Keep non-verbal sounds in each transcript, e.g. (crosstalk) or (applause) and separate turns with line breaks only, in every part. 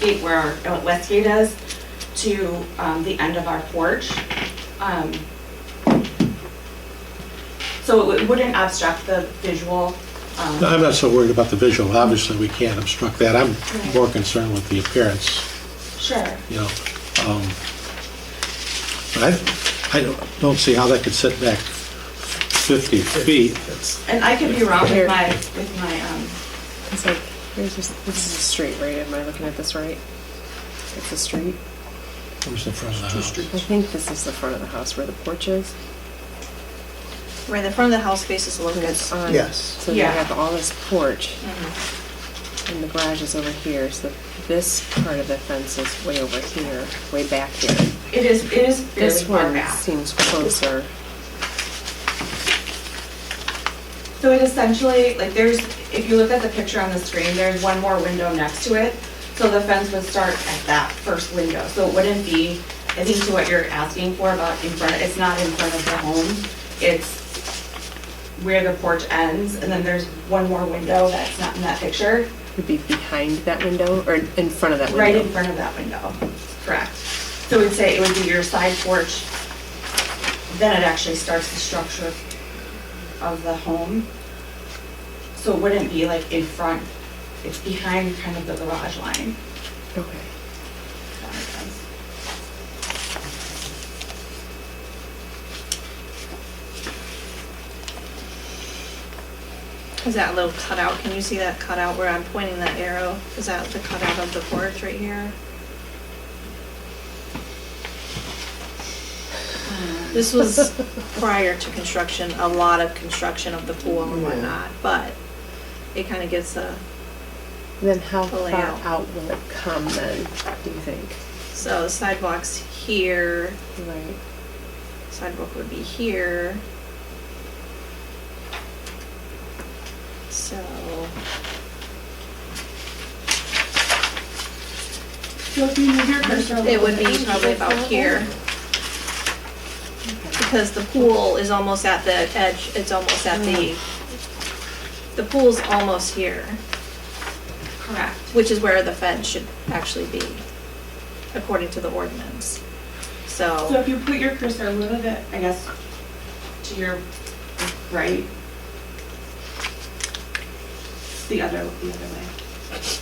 gate where uh, Westview does to um, the end of our porch. Um, So it wouldn't obstruct the visual. um,
No, I'm not so worried about the visual, obviously we can't obstruct that, I'm more concerned with the appearance,
Sure.
you know. Um, But I, I don't- don't see how that could sit back 50 feet.
And I could be wrong with my, with my, um,
It's like, here's this, this is a street, right? Am I looking at this right? It's a street.
Where's the front of the house?
I think this is the front of the house where the porch is.
Right, the front of the house faces
And
Locust.
it's on.
Yes.
So you
Yeah.
have all this porch,
Mm-hmm.
and the garage is over here. So this part of the fence is way over here, way back here.
it is, it is fairly
This
far
one
back.
seems closer.
So it essentially, like there's, if you look at the picture on the screen, there's one more window next to it. So the fence would start at that first window. So it wouldn't be, I think to what you're asking for about in front, it's not in front of the home. It's where the porch ends and then there's one more window that's not in that picture,
Would be behind that window or in front of that window.
right in front of that window. Correct. So we'd say it would be your side porch. Then it actually starts the structure of the home. So it wouldn't be like in front, it's behind kind of the garage line.
Okay.
if that makes sense.
Is that little cutout, can you see that cutout where I'm pointing that arrow? Is that the cutout of the porch right here? This was prior to construction, a lot of construction of the pool and whatnot, but it kind of gets a,
Then how
The
far
layout.
out will it come then? Do you think?
so the sidewalks here,
Right.
sidewalk would be here. So, it would be probably about here. Because the pool is almost at the edge, it's almost at the, the pool's almost here,
Correct.
which is where the fence should actually be, according to the ordinance.
So
So,
if you put your cursor a little bit, I guess, to your right. The other, the other way.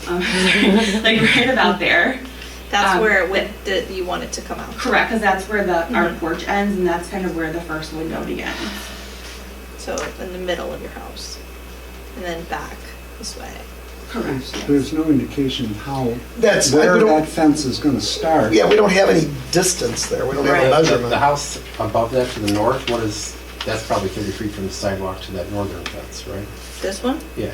Um, (laughs) Like right about there.
that's
Um,
where it went, that you want it to come out.
Correct, because that's where the, our porch ends and that's kind of where the first window begins.
So in the middle of your house, and then back this way.
Correct. yes.
There's no indication how,
That's, we
where
don't,
that fence is gonna start.
yeah, we don't have any distance there. We don't have a
Right.
The- The
measurement.
house above that to the north, what is, that's probably 30 feet from the sidewalk to that northern fence, right?
This one?
Yeah.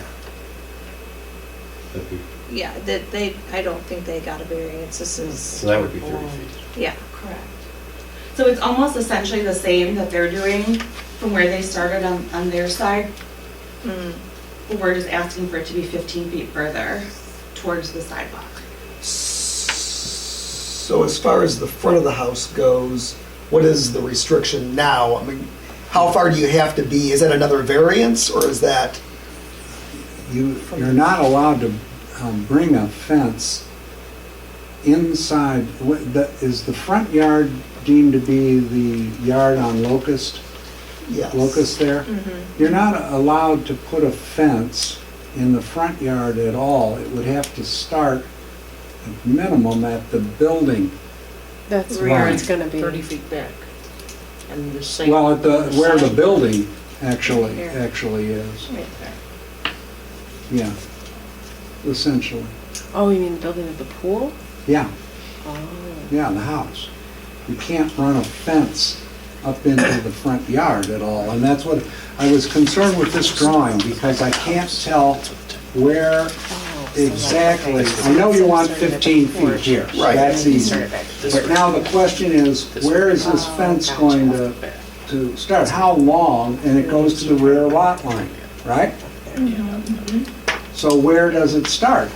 That'd be-
Yeah, that they, I don't think they got a variance, this
So
is,
that would be 30 feet.
yeah.
Correct. So it's almost essentially the same that they're doing from where they started on, on their side.
Mm.
but We're just asking for it to be 15 feet further towards the sidewalk.
So as far as the front of the house goes, what is the restriction now? I mean, how far do you have to be? Is that another variance or is that,
You, you're not allowed to um, bring a fence inside, wh- the- is the front yard deemed to be the yard on Locust,
yes?
Locust there? You're not allowed to put a fence in the front yard at all. It would have to start at minimum at the building.
That's
Right.
where it's gonna be.
30 feet back. And the same.
Well, at the, where the building actually,
Here.
actually is,
Right there.
yeah, essentially.
Oh, you mean the building of the pool?
Yeah,
Oh.
yeah, the house. You can't run a fence up into the front yard at all, and that's what, I was concerned with this drawing, because I can't tell where
oh, so like,
exactly,
okay, so
I know
it's
you want
starting at the
15 feet
porch,
here,
Right.
that's
and you
easy.
start it back here.
But now the question is, where is this
Oh,
fence
gotcha.
going to, to start? How long, and it goes to the rear lot line, right?
Mm-hmm.
So where does it start?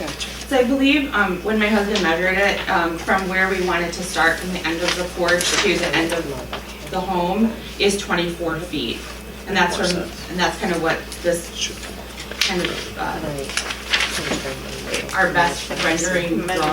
Gotcha.
So I believe um, when my husband measured it, um, from where we wanted to start from the end of the porch to the end of the home is 24 feet. And that's from, and that's kind of what this kind of uh,
Right.
our best rendering
Measure-
drawing